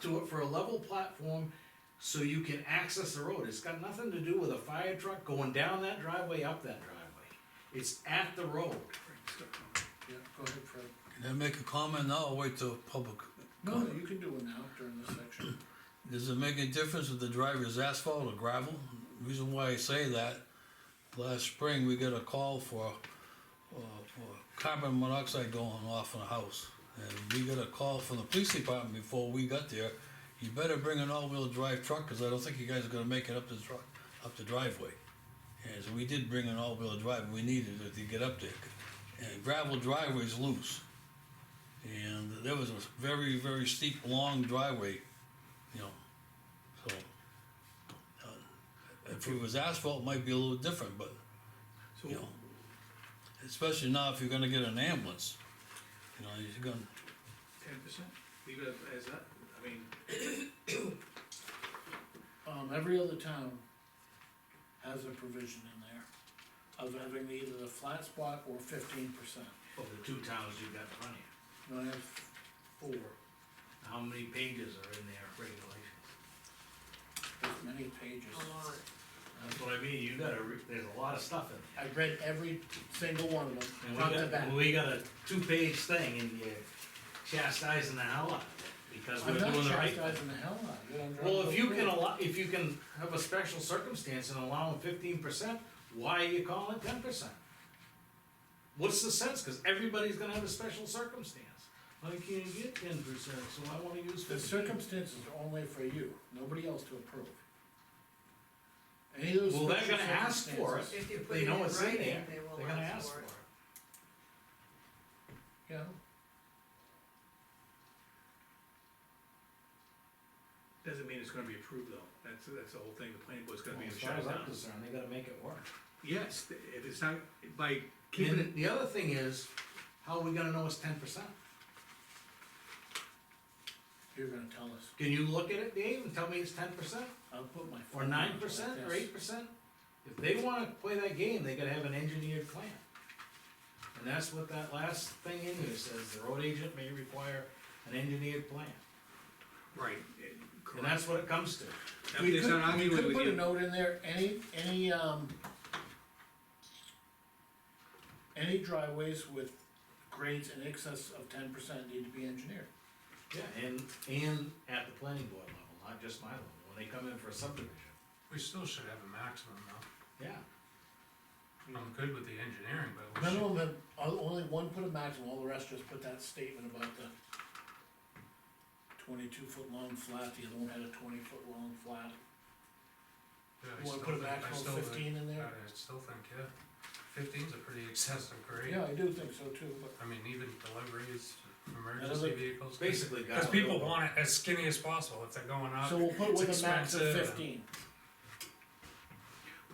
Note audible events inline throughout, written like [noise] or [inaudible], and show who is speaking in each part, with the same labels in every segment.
Speaker 1: to it for a level platform so you can access the road. It's got nothing to do with a fire truck going down that driveway, up that driveway. It's at the road.
Speaker 2: Yeah, go ahead, Fred.
Speaker 3: Can I make a comment now or wait till public?
Speaker 2: No,
Speaker 3: comment?
Speaker 2: you can do it now during
Speaker 1: [clears throat]
Speaker 2: this section.
Speaker 3: Does it make any difference if the driver's asphalt or gravel? Reason why I say that, last spring, we got a call for, uh, for carbon monoxide going off in a house. And we got a call from the police department before we got there, you better bring an all-wheel drive truck, cause I don't think you guys are gonna make it up the truck, up the driveway. And so we did bring an all-wheel drive, and we needed it to get up there. And gravel driveway's loose. And there was a very, very steep, long driveway you know, so. uh, If it was asphalt, it might be a little different, but,
Speaker 4: So,
Speaker 3: you know, especially now if you're gonna get an ambulance, you know, you're gonna,
Speaker 4: ten percent, leave it as that, I mean,
Speaker 2: Um, every other town has a provision in there of having either the flat spot or fifteen percent.
Speaker 1: Of the two towns, you've got plenty.
Speaker 2: And I have four,
Speaker 1: How many pages are in their regulations?
Speaker 2: as many pages.
Speaker 1: That's what I mean, you gotta, re- there's a lot of stuff in
Speaker 2: I read every single one of them,
Speaker 1: there.
Speaker 2: front
Speaker 1: And
Speaker 2: to
Speaker 1: we
Speaker 2: back.
Speaker 1: got, we got a two-page thing and you're chastising the hell out of it because we're
Speaker 2: I'm not
Speaker 1: doing the right thing.
Speaker 2: chastising the hell out of it. I'm
Speaker 1: Well,
Speaker 2: driving
Speaker 1: if you
Speaker 2: the
Speaker 1: can
Speaker 2: road.
Speaker 1: allow, if you can have a special circumstance and allow them fifteen percent, why are you calling it ten percent? What's the sense, cause everybody's gonna have a special circumstance, I can't get ten percent, so I wanna use
Speaker 2: The
Speaker 1: fifteen.
Speaker 2: circumstances are only for you, nobody else to approve. Any of those.
Speaker 1: Well, they're
Speaker 2: special
Speaker 1: gonna ask for it,
Speaker 2: circumstances-
Speaker 5: If you
Speaker 1: if
Speaker 5: put it
Speaker 1: they
Speaker 5: in
Speaker 1: know it's in
Speaker 5: writing,
Speaker 1: there,
Speaker 5: they will
Speaker 1: they're gonna ask for it.
Speaker 2: Yeah,
Speaker 4: doesn't mean it's gonna be approved though, that's, that's the whole thing, the planning board's gonna be
Speaker 1: Well, As far
Speaker 4: shut
Speaker 1: as I'm
Speaker 4: down.
Speaker 1: concerned, they gotta make it work.
Speaker 4: Yes, if it's not, by keeping it,
Speaker 1: And the other thing is, how are we gonna know it's ten percent?
Speaker 2: you're gonna tell us,
Speaker 1: Can you look at it, Dave, and tell me it's ten percent,
Speaker 2: I'll put my.
Speaker 1: or
Speaker 2: phone number
Speaker 1: nine
Speaker 2: like
Speaker 1: percent, or
Speaker 2: this.
Speaker 1: eight percent? If they wanna play that game, they gotta have an engineered plan. And that's what that last thing in here says, the road agent may require an engineered plan,
Speaker 4: right, eh,
Speaker 1: and
Speaker 4: correct.
Speaker 1: that's what it comes to.
Speaker 4: That-
Speaker 2: We
Speaker 4: it's
Speaker 2: could,
Speaker 4: not
Speaker 2: we
Speaker 4: arguing
Speaker 2: could
Speaker 4: with
Speaker 2: put
Speaker 4: you.
Speaker 2: a note in there, any, any, um, any driveways with grades in excess of ten percent need to be engineered.
Speaker 1: Yeah, and, and at the planning board level, not just my level, when they come in for a subdivision,
Speaker 6: We still should have a maximum though.
Speaker 1: yeah.
Speaker 6: I'm good with the engineering, but we should,
Speaker 2: Minimum, of- o- only one put a maximum, all the rest just put that statement about the twenty-two foot long flat, the other one had a twenty foot long flat.
Speaker 6: yeah, I
Speaker 2: You
Speaker 6: still
Speaker 2: wanna put a
Speaker 6: think, I
Speaker 2: maximum
Speaker 6: still
Speaker 2: of
Speaker 6: think,
Speaker 2: fifteen in
Speaker 6: I
Speaker 2: there?
Speaker 6: still think, yeah, fifteen's a pretty excessive grade.
Speaker 2: Yeah, I do think so too, but
Speaker 6: I mean, even deliveries,
Speaker 2: Another-
Speaker 6: emergency vehicles.
Speaker 1: Basically, guys.
Speaker 6: Cause people want it as skinny as possible, if they're going up,
Speaker 2: So we'll put
Speaker 6: it's
Speaker 2: with a max of
Speaker 6: expensive, and
Speaker 2: fifteen,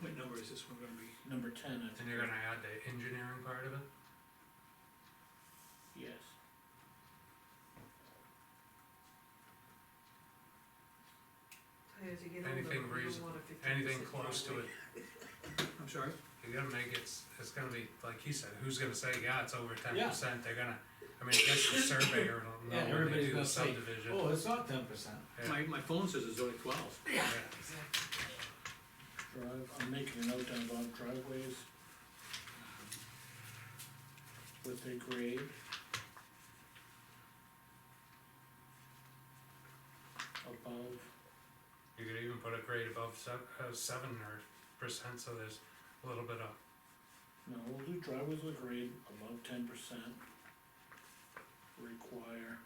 Speaker 4: What number is this one gonna be?
Speaker 2: number ten, I
Speaker 6: then
Speaker 2: think,
Speaker 6: you're gonna add the engineering part of it.
Speaker 2: yes.
Speaker 5: As you get older,
Speaker 6: Anything
Speaker 5: you don't
Speaker 6: reason-
Speaker 5: want a 50%
Speaker 6: anything close to
Speaker 5: driveway.
Speaker 6: it.
Speaker 4: I'm sorry?
Speaker 6: You gotta make it, s- it's gonna be, like he said, who's gonna say, yeah, it's over ten
Speaker 1: Yeah.
Speaker 6: percent, they're gonna, I mean, I guess the
Speaker 1: Yeah,
Speaker 6: surveyor will know when they
Speaker 1: everybody's
Speaker 6: do
Speaker 1: gonna
Speaker 6: the
Speaker 1: say,
Speaker 6: subdivision.
Speaker 1: Oh, it's not ten percent.
Speaker 6: Yeah.
Speaker 4: My, my phone says it's only twelve.
Speaker 6: Yeah.
Speaker 5: Exactly.
Speaker 2: Drive, I'm making a note down about driveways. With a grade. Above,
Speaker 6: You could even put a grade above seven, uh, seven or percent, so there's a little bit of
Speaker 2: no, we'll do driveways with grade above ten percent. Require.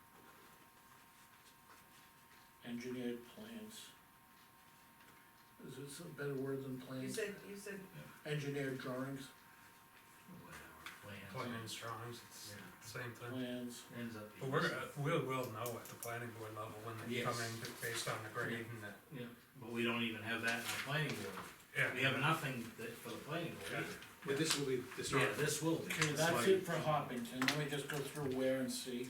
Speaker 2: Engineered plans. Is this a better word than
Speaker 5: You
Speaker 2: plans?
Speaker 5: said, you said,
Speaker 2: Engineered drawings,
Speaker 1: Whatever,
Speaker 6: plain
Speaker 1: plans,
Speaker 6: and strongs, it's
Speaker 1: yeah.
Speaker 6: the same thing.
Speaker 2: plans.
Speaker 1: ends up.
Speaker 6: But
Speaker 1: being-
Speaker 6: we're, uh, we'll, we'll know at the planning board level when they come
Speaker 1: Yes.
Speaker 6: in, b- based on the grade and the,
Speaker 1: Yeah, but we don't even have that in our planning board.
Speaker 6: yeah.
Speaker 1: We have nothing that, for the planning board either.
Speaker 4: But this will be, this
Speaker 1: Yeah,
Speaker 4: one,
Speaker 1: this will be. That's
Speaker 2: Okay, that's
Speaker 1: why-
Speaker 2: it for Hoppington, let me just go through where and see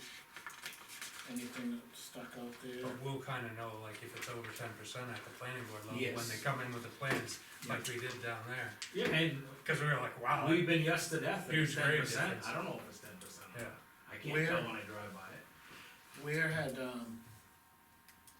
Speaker 2: anything that stuck out there.
Speaker 6: But we'll kinda know, like, if it's over ten percent at the planning board level, when they
Speaker 1: Yes.
Speaker 6: come in with the plans, like we did down there.
Speaker 1: Yeah, and
Speaker 6: Cause we were like, wow,
Speaker 1: we've been yes to death, if it's
Speaker 6: Huge grade
Speaker 1: ten percent,
Speaker 6: difference.
Speaker 1: I don't know if it's ten percent.
Speaker 6: yeah,
Speaker 1: I can't
Speaker 2: Where-
Speaker 1: tell when I drive by it.
Speaker 2: Where had, um,